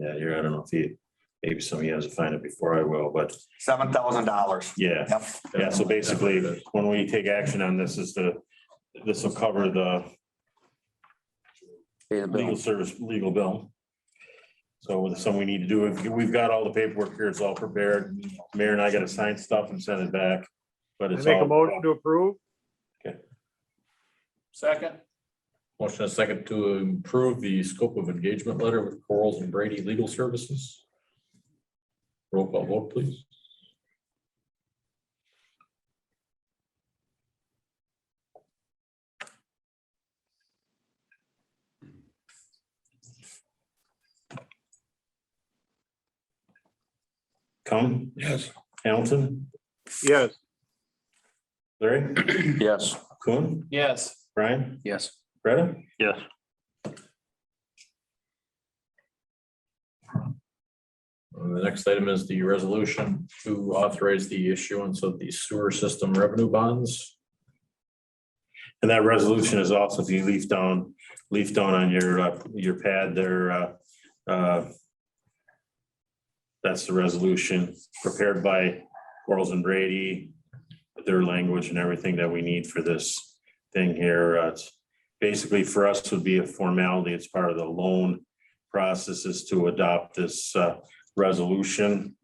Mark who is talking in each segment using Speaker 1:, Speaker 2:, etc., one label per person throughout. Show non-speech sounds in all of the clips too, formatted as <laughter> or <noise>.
Speaker 1: that year. I don't know if he, maybe some of you guys will find it before I will, but
Speaker 2: Seven thousand dollars.
Speaker 1: yeah.
Speaker 2: Yep.
Speaker 1: Yeah, so basically, when we take action on this is the, this will cover the
Speaker 3: Pay the
Speaker 1: legal
Speaker 3: bill.
Speaker 1: service, legal bill. So with some we need to do, we've got all the paperwork here, it's all prepared. Mayor and I gotta sign stuff and send it back, but
Speaker 4: I
Speaker 1: it's
Speaker 4: make a
Speaker 1: all,
Speaker 4: motion to approve.
Speaker 5: Second.
Speaker 6: Motion and second to improve the scope of engagement letter with Corals and Brady Legal Services. Roll call vote, please.
Speaker 1: come,
Speaker 6: Yes.
Speaker 1: Hamilton,
Speaker 4: Yes,
Speaker 1: Larry,
Speaker 3: Yes.
Speaker 1: Coon,
Speaker 5: Yes.
Speaker 1: Brian,
Speaker 3: Yes.
Speaker 1: Greta?
Speaker 4: Yes.
Speaker 6: Uh, The next item is the resolution to authorize the issuance of the sewer system revenue bonds.
Speaker 1: And that resolution is also, if you leaf down, leaf down on your, uh, your pad there, uh, uh, that's the resolution prepared by Quarles and Brady, their language and everything that we need for this thing here. Uh, it's Basically, for us would be a formality. It's part of the loan processes to adopt this, uh, resolution.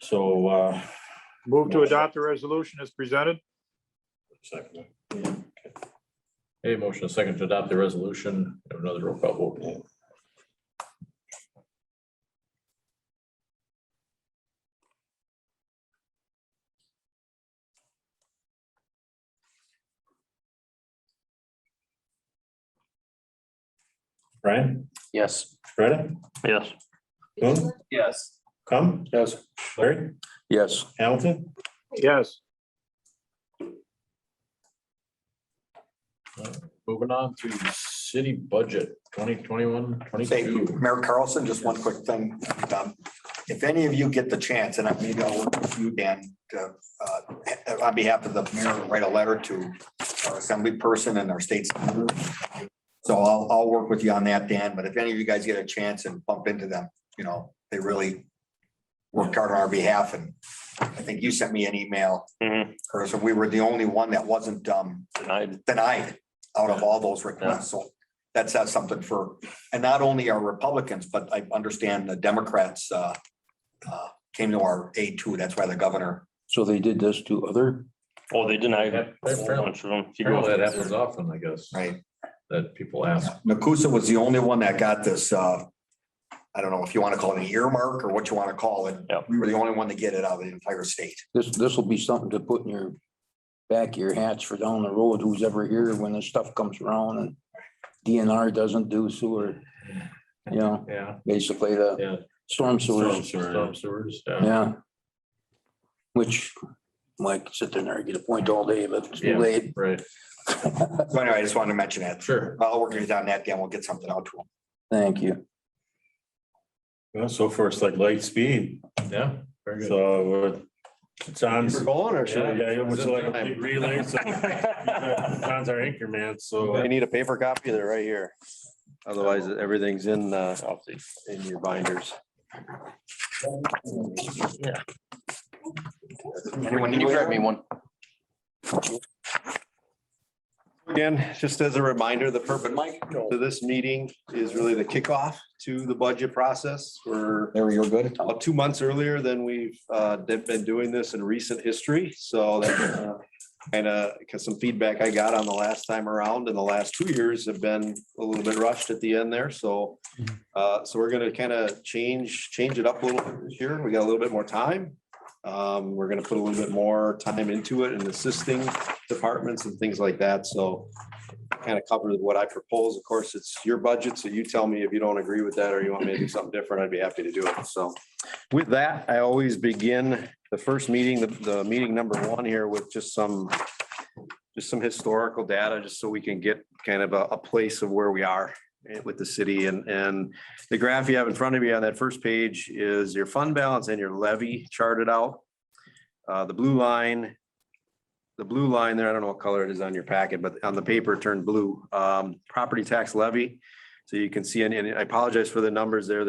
Speaker 1: So, uh,
Speaker 4: move to adopt the resolution as presented.
Speaker 1: second.
Speaker 6: Hey, motion and second to adopt the resolution. Have Another roll call vote.
Speaker 1: Brian,
Speaker 3: Yes.
Speaker 1: Greta,
Speaker 4: Yes.
Speaker 1: Coon,
Speaker 5: Yes.
Speaker 1: come,
Speaker 3: Yes.
Speaker 1: Larry,
Speaker 3: Yes.
Speaker 1: Hamilton?
Speaker 4: Yes,
Speaker 6: Moving on to city budget 2021,
Speaker 2: Say,
Speaker 6: 22.
Speaker 2: Mayor Carlson, just one quick thing. um, If any of you get the chance, and I maybe I'll work with you, Dan, to, uh, on behalf of the mayor, write a letter to our assembly person and our state. senator. So I'll, I'll work with you on that, Dan, but if any of you guys get a chance and bump into them, you know, they really worked hard on our behalf and I think you sent me an email.
Speaker 3: Mhm.
Speaker 2: Or so we were the only one that wasn't um,
Speaker 3: Denied.
Speaker 2: denied out of all those requests. So that says something for, and not only our Republicans, but I understand the Democrats uh, uh, came to our aid too. That's why the governor,
Speaker 3: So they did this to other?
Speaker 7: Oh, they denied a
Speaker 6: That- that-
Speaker 7: whole bunch of them. If you go-
Speaker 6: Apparently that happens often, I guess,
Speaker 2: right?
Speaker 6: that people ask.
Speaker 2: Nakusa was the only one that got this, uh, I don't know if you want to call it an earmark or what you want to call it.
Speaker 7: Yep.
Speaker 2: We were the only one to get it out of the entire state.
Speaker 3: This, this will be something to put in your back of your hats for down the road, who's ever here when this stuff comes around and DNR doesn't do sewer. You know,
Speaker 6: Yeah.
Speaker 3: basically the
Speaker 6: Yeah.
Speaker 1: Storm
Speaker 3: storm sewers,
Speaker 1: sewer, yeah.
Speaker 6: Storm sewers, yeah.
Speaker 3: yeah. Which Mike sit there and argue the point all day, but it's too
Speaker 6: Yeah.
Speaker 3: late.
Speaker 6: Right,
Speaker 2: So anyway, I just wanted to mention that.
Speaker 6: sure.
Speaker 2: I'll work with you on that, Dan. We'll get something out to them.
Speaker 3: Thank you.
Speaker 1: Well, so far it's like light speed,
Speaker 6: Yeah, very good.
Speaker 1: so uh, it's on.
Speaker 8: We're going or
Speaker 1: Yeah,
Speaker 8: should
Speaker 1: yeah, it was like a
Speaker 6: Time.
Speaker 1: big relay.
Speaker 6: <laughs>
Speaker 1: so- John's our anchor man, so.
Speaker 8: we?
Speaker 1: uh,
Speaker 8: You need a paper copy They're right here. Otherwise, everything's in, uh, in your binders.
Speaker 2: Anyone need anything?
Speaker 3: one?
Speaker 8: Again, just as a reminder, the purpose of this meeting is really the kickoff to the budget process. We're
Speaker 2: Larry, you're good?
Speaker 8: about two months earlier than we've uh, they've been doing this in recent history, so that kind of, because some feedback I got on the last time around and the last two years have been a little bit rushed at the end there, so uh, so we're gonna kind of change, change it up a little bit this year. We got a little bit more time. Um, We're gonna put a little bit more time into it and assisting departments and things like that, so kind of covered what I propose. Of course, it's your budget, so you tell me if you don't agree with that or you want me to do something different, I'd be happy to do it, so. With that, I always begin the first meeting, the, the meeting number one here with just some, just some historical data, just so we can get kind of a, a place of where we are with the city and, and the graph you have in front of you on that first page is your fund balance and your levy charted out. Uh, the blue line, the blue line there, I don't know what color it is on your packet, but on the paper it turned blue, um, property tax levy So you can see, and and I apologize for the numbers there.